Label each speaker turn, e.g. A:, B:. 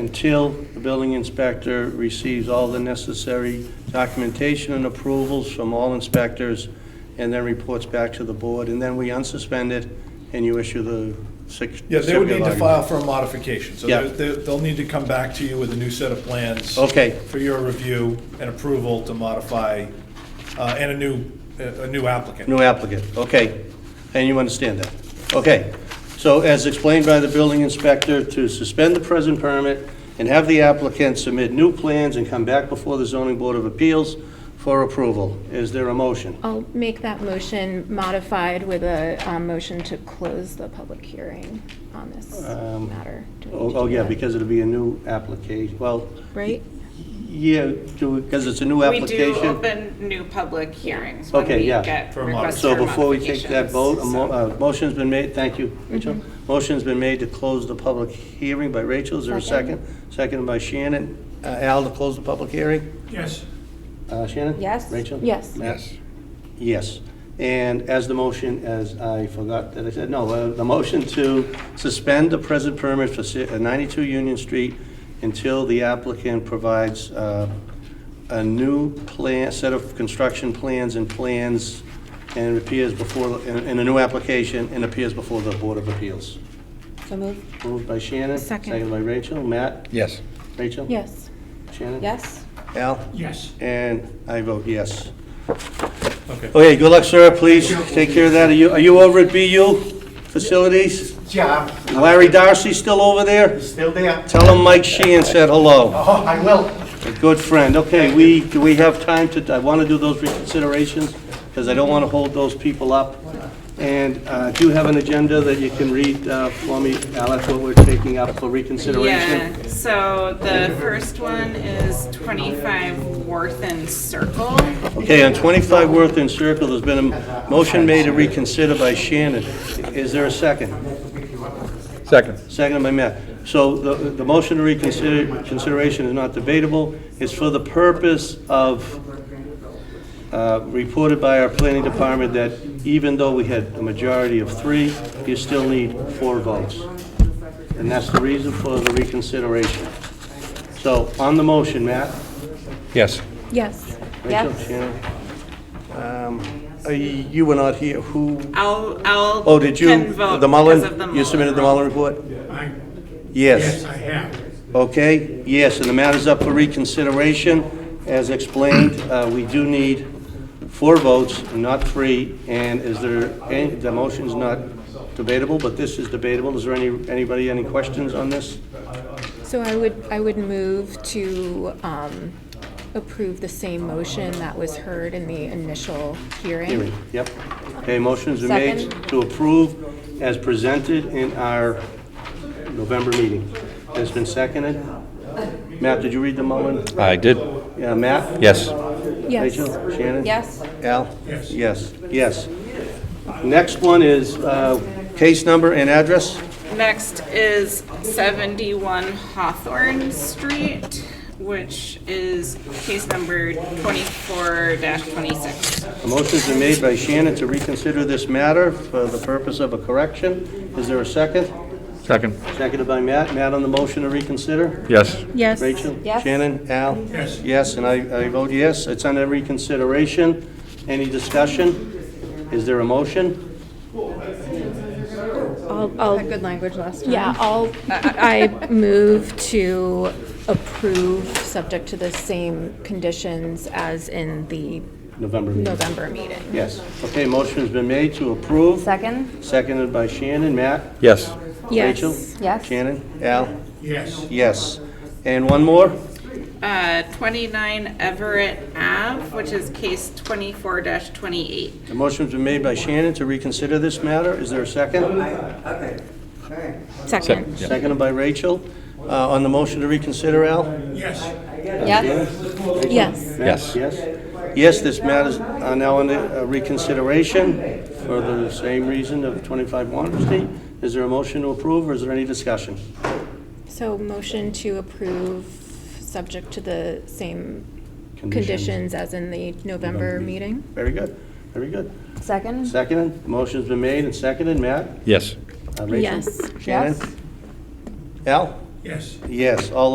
A: until the building inspector receives all the necessary documentation and approvals from all inspectors, and then reports back to the board, and then we unsuspend it, and you issue the six.
B: Yeah, they would need to
A: certificate of
B: file for a modification, so
A: Yeah.
B: they're- they're- they'll need to come back to you with a new set of plans.
A: Okay.
B: For your review and approval to modify, uh, and a new, a a new applicant.
A: New applicant, okay. And you understand that? Okay. So as explained by the building inspector, to suspend the present permit and have the applicant submit new plans and come back before the zoning board of appeals for approval. Is there a motion?
C: I'll make that motion modified with a um, motion to close the public hearing on this
A: Um,
C: matter. Do we
A: Oh,
C: do
A: oh, yeah,
C: that?
A: because it'll be a new application, well,
C: Right?
A: yeah, because it's a new
D: We do
A: application.
D: open new public hearings when
A: Okay,
D: we
A: yeah.
D: get
B: For a mod-
D: requests
A: So
D: for
A: before we take that
D: modifications,
A: vote, a mo-
D: so.
A: uh, motion's been made, thank you,
D: Mm-hmm.
A: Rachel. Motion's been made to close the public hearing by Rachel, is there a second?
C: Second.
A: Seconded by Shannon. Uh, Al, to close the public hearing?
B: Yes.
A: Uh, Shannon?
E: Yes.
A: Rachel?
C: Yes.
A: Matt? Yes. And as the motion, as I forgot that I said, no, uh, the motion to suspend the present permit for si- uh, 92 Union Street until the applicant provides uh, a new plan, set of construction plans and plans and appears before, in in a new application and appears before the Board of Appeals.
E: So moved?
A: Moved by Shannon.
C: Second.
A: Seconded by Rachel. Matt?
F: Yes.
A: Rachel?
C: Yes.
A: Shannon?
E: Yes?
A: Al?
B: Yes.
A: And I vote yes.
B: Okay.
A: Okay, good luck, sir, please take care of that. Are you, are you over at BU Facilities?
G: Yeah,
A: Larry Darcy still over there?
G: still there.
A: Tell him Mike Sheehan said hello.
G: Oh, I will.
A: A good friend. Okay, we, do we have time to, I want to do those reconsiderations, because I don't want to hold those people up. And uh, do you have an agenda that you can read uh, for me, Alex, what we're taking up for reconsideration?
D: Yeah, so the first one is 25 Worthen Circle.
A: Okay, on 25 Worthington Circle, there's been a motion made to reconsider by Shannon. Is there a second?
F: Second.
A: Second by Matt. So the, the motion to reconsider, consideration is not debatable. It's for the purpose of, uh, reported by our planning department that even though we had a majority of three, you still need four votes. And that's the reason for the reconsideration. So on the motion, Matt?
F: Yes.
C: Yes.
A: Rachel,
E: Yes.
A: Shannon? Um, uh, You were not here. Who?
D: I'll, I'll.
A: Oh, did you,
D: can vote
A: the Mullen?
D: because of the
A: You submitted the
D: rule.
A: Mullen report? Yes. I have. Okay, yes, and the matter's up for reconsideration. As explained, uh, we do need four votes, not three, and is there, any- the motion's not debatable, but this is debatable. Is there any, anybody, any questions on this?
C: So I would, I would move to um, approve the same motion that was heard in the initial
A: Hearing,
C: hearing.
A: yep. Okay, motions are made
E: Second.
A: to approve as presented in our November meeting. It's been seconded. Matt, did you read the Mullen?
F: I did.
A: Yeah, Matt?
F: Yes.
C: Yes.
A: Rachel? Shannon?
E: Yes?
A: Al? Yes. Yes, yes. Next one is uh, case number and address.
D: Next is 71 Hawthorne Street, which is case number 24-26.
A: A motion's been made by Shannon to reconsider this matter for the purpose of a correction. Is there a second?
F: Second.
A: Seconded by Matt. Matt on the motion to reconsider?
F: Yes.
C: Yes.
A: Rachel?
E: Yes.
A: Shannon? Al? Yes. Yes, and I I vote yes. It's under reconsideration. Any discussion? Is there a motion?
E: Had good language last time.
C: Yeah, I'll, I I move to approve, subject to the same conditions as in the
A: November meeting.
C: November meeting.
A: Yes. Okay, motion's been made to approve,
E: Second?
A: seconded by Shannon. Matt?
F: Yes.
C: Yes.
A: Rachel?
E: Yes?
A: Shannon? Al? Yes. Yes. And one more?
D: Uh, 29 Everett Ave, which is case 24-28.
A: The motion's been made by Shannon to reconsider this matter. Is there a second?
C: Second.
A: Seconded by Rachel. Uh, On the motion to reconsider, Al?
E: Yes?
C: Yes.
F: Yes.
A: Yes? Yes, this matter's uh, now under uh, reconsideration for the same reason of 25 Water Street. Is there a motion to approve, or is there any discussion?
C: So motion to approve, subject to the same
A: Conditions.
C: conditions as in the November meeting?
A: Very good, very good.
E: Second?
A: Seconded, motion's been made and seconded. Matt?
F: Yes.
A: Uh, Rachel?
C: Yes.
A: Shannon?
E: Yes?
A: Al? Yes. Yes, all